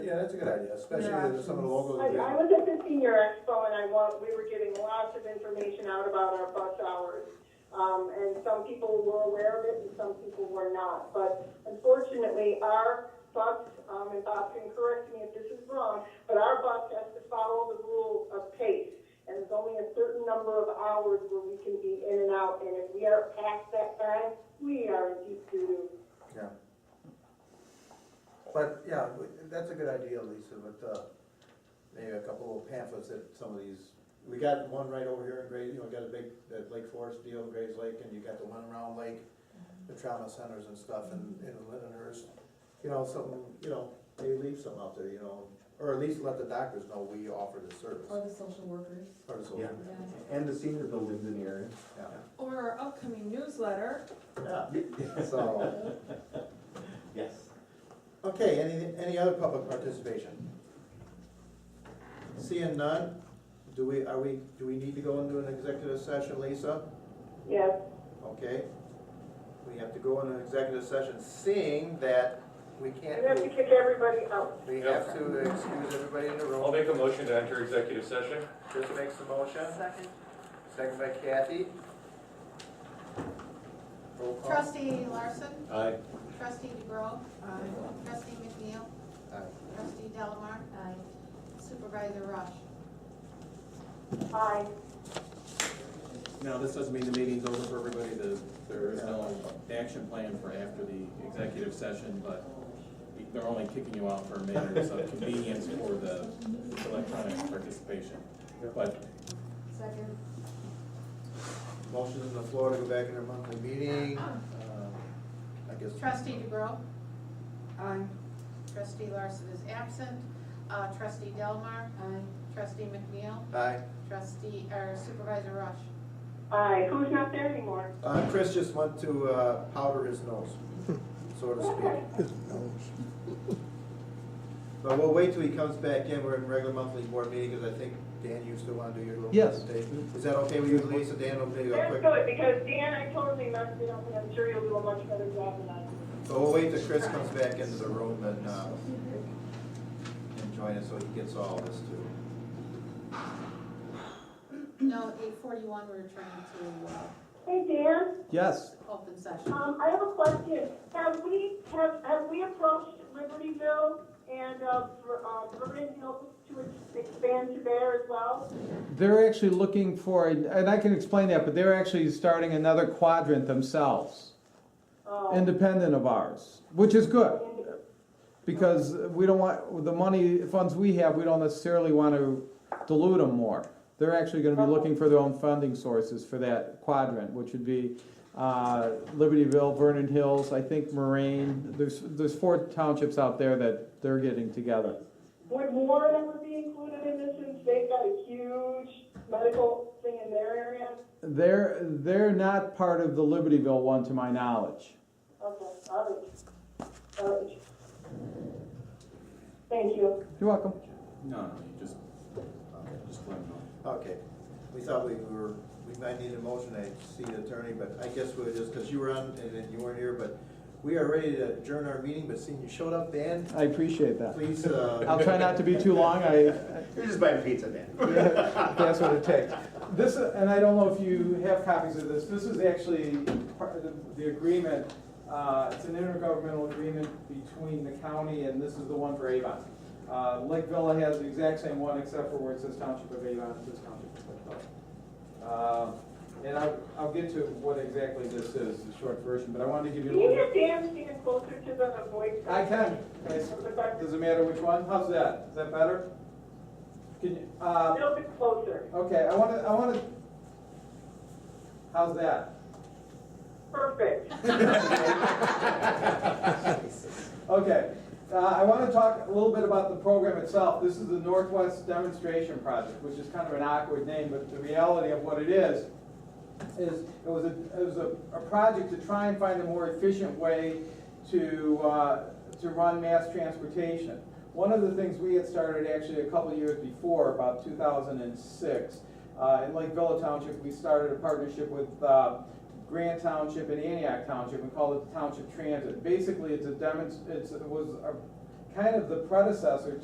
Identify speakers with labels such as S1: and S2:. S1: Yeah, that's a good idea, especially with some of the logos.
S2: I,
S1: we
S2: I
S1: have.
S2: was at the senior expo and I want, we were giving lots of information out about our bus hours. Um, and some people were aware of it and some people were not. But unfortunately, our bus, um, and Bob can correct me if this is wrong, but our bus has to follow the rule of pace. And there's only a certain number of hours where we can be in and out. And if we are past that time, we are in deep doo-doo.
S1: Yeah. But, yeah, we- that's a good idea, Lisa, but, uh, maybe a couple of pamphlets that some of these, we got one right over here in Grays, you know, we got a big, that Lake Forest deal in Grays Lake, and you got the one around Lake,
S2: Mm-hmm.
S1: the trauma centers and stuff, and, and Lindeners, you know, something, you know, maybe leave some out there, you know, or at least let the doctors know we offer this service.
S3: Or the social workers.
S1: Or the
S4: Yeah.
S1: solution,
S4: And the senior buildings in the area.
S1: yeah,
S5: Or our upcoming newsletter.
S1: yeah, so,
S4: Yes.
S1: okay, any, any other public participation? Seeing none, do we, are we, do we need to go into an executive session, Lisa?
S2: Yes,
S1: Okay, we have to go into an executive session, seeing that we
S2: we have to
S1: can't,
S2: kick everybody out.
S1: we have to excuse everybody in the room.
S6: I'll make a motion to enter executive session.
S1: Chris makes the motion. Second. Second by Kathy. Roll call.
S7: Trustee Larson,
S4: Aye.
S7: trustee DeGrove, trustee McNeil,
S1: Aye.
S7: trustee Delamar,
S3: Aye.
S7: supervisor Rush.
S2: Aye.
S8: Now, this doesn't mean the meeting's over for everybody, the, there is no action plan for after the executive session, but they're only kicking you out for matters of convenience for the electronic participation. But
S3: Second.
S1: Motion on the floor to go back in our monthly meeting. Um, I guess.
S7: Trustee DeGrove,
S3: Aye.
S7: trustee Larson is absent, uh, trustee Delmar,
S3: Aye.
S7: trustee McNeil,
S1: Aye.
S7: trustee, or supervisor Rush.
S2: Aye, who's not there anymore?
S1: Uh, Chris just went to, uh, powder his nose, so to speak. His nose. But we'll wait till he comes back in, we're in regular monthly board meeting, because I think, Dan, you still wanna do your little
S4: Yes.
S1: presentation? Is that okay with you, Lisa, Dan, will do a
S2: That's
S1: quick?
S2: good, because Dan, I totally messed it up, and I'm sure you'll do a much better job than I did.
S1: So we'll wait till Chris comes back into the room and, uh, and join us, so he gets all this too.
S7: No, eight forty-one, we're trying to, uh,
S2: Hey, Dan,
S4: Yes.
S7: open session.
S2: um, I have a question. Have we, have, have we approached Libertyville and, uh, for, um, Vernon Hills to ex- expand to there as well?
S9: They're actually looking for, and I can explain that, but they're actually starting another quadrant themselves,
S2: Oh,
S9: independent of ours, which is good,
S2: and-
S9: because we don't want, the money, funds we have, we don't necessarily want to dilute them more. They're actually gonna be looking for their own funding sources for that quadrant, which would be, uh, Libertyville, Vernon Hills, I think Moraine, there's, there's four townships out there that they're getting together.
S2: Would Warren ever be included in this, since they've got a huge medical thing in their area?
S9: They're, they're not part of the Libertyville one, to my knowledge.
S2: Okay, all right. All right. Thank you.
S9: You're welcome.
S8: no, no, you just, just let them know.
S1: Okay, we thought we were, we might need a motion to see the attorney, but I guess we're just, because you were on and then you weren't here, but we are ready to adjourn our meeting, but seeing you showed up, Dan,
S9: I appreciate that.
S1: please, uh.
S9: I'll try not to be too long, I,
S4: You're just buying pizza, man.
S9: that's what it takes. This, and I don't know if you have copies of this, this is actually part of the- the agreement, uh, it's an intergovernmental agreement between the county, and this is the one for Avon. Uh, Lake Villa has the exact same one, except for where it says Township of Avon, it says Township of Lake Villa. Uh, And I'll, I'll get to what exactly this is, the short version, but I wanted to give you a
S2: Can you get
S9: little.
S2: Dan stand closer to the voice?
S9: I can. Does it matter which one? How's that? Is that better? Can you,
S2: A
S9: uh,
S2: little bit closer,
S9: okay, I wanna, I wanna, how's that?
S2: perfect.
S9: Okay, uh, I wanna talk a little bit about the program itself. This is the Northwest Demonstration Project, which is kind of an awkward name, but the reality of what it is, is it was a, it was a, a project to try and find a more efficient way to, uh, to run mass transportation. One of the things we had started actually a couple of years before, about two thousand and six, uh, in Lake Villa Township, we started a partnership with, uh, Grant Township and Antioch Township, we called it the Township Transit. Basically, it's a demonst, it's, it was a, kind of the predecessor